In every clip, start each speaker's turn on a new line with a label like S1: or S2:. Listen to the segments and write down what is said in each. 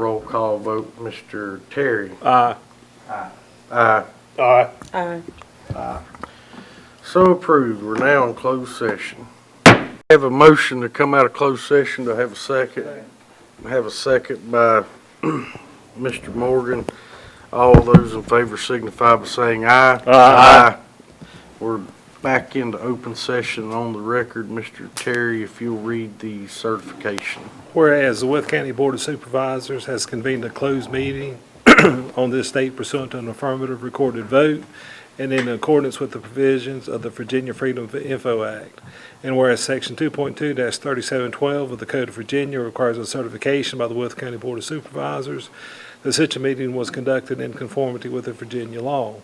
S1: Roll call vote, Mr. Terry.
S2: Aye.
S1: Aye.
S2: Aye.
S3: Aye.
S1: So approved. We're now in closed session. Have a motion to come out of closed session. to have a second? Have a second by Mr. Morgan. All those in favor signify by saying aye.
S2: Aye.
S1: We're back into open session on the record. Mr. Terry, if you'll read the certification.
S2: Whereas the Worth County Board of Supervisors has convened a closed meeting on this date pursuant to an affirmative recorded vote and in accordance with the provisions of the Virginia Freedom of Info Act. And whereas Section 2.2-3712 of the Code of Virginia requires a certification by the Worth County Board of Supervisors that such a meeting was conducted in conformity with the Virginia law.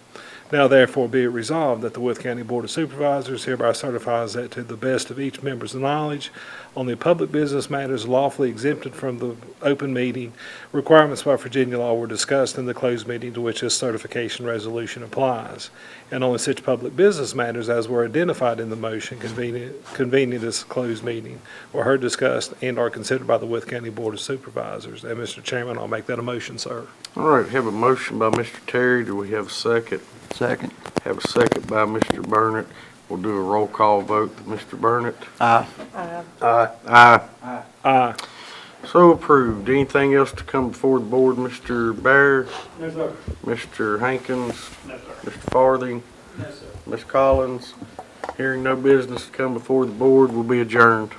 S2: Now therefore be it resolved that the Worth County Board of Supervisors hereby certifies that to the best of each member's knowledge on the public business matters lawfully exempted from the open meeting, requirements by Virginia law were discussed in the closed meeting to which this certification resolution applies, and only such public business matters as were identified in the motion convening, convening this closed meeting were heard, discussed, and are considered by the Worth County Board of Supervisors. And, Mr. Chairman, I'll make that a motion, sir.
S1: All right, have a motion by Mr. Terry. Do we have a second?
S4: Second.
S1: Have a second by Mr. Burnett. We'll do a roll call vote. Mr. Burnett?
S4: Aye.
S1: Aye. Aye.
S2: Aye.
S1: So approved. Anything else to come before the board, Mr. Bear? No, sir. Mr. Hankins? No, sir. Mr. Farthing? No, sir. Ms. Collins? Hearing no business to come before the board will be adjourned.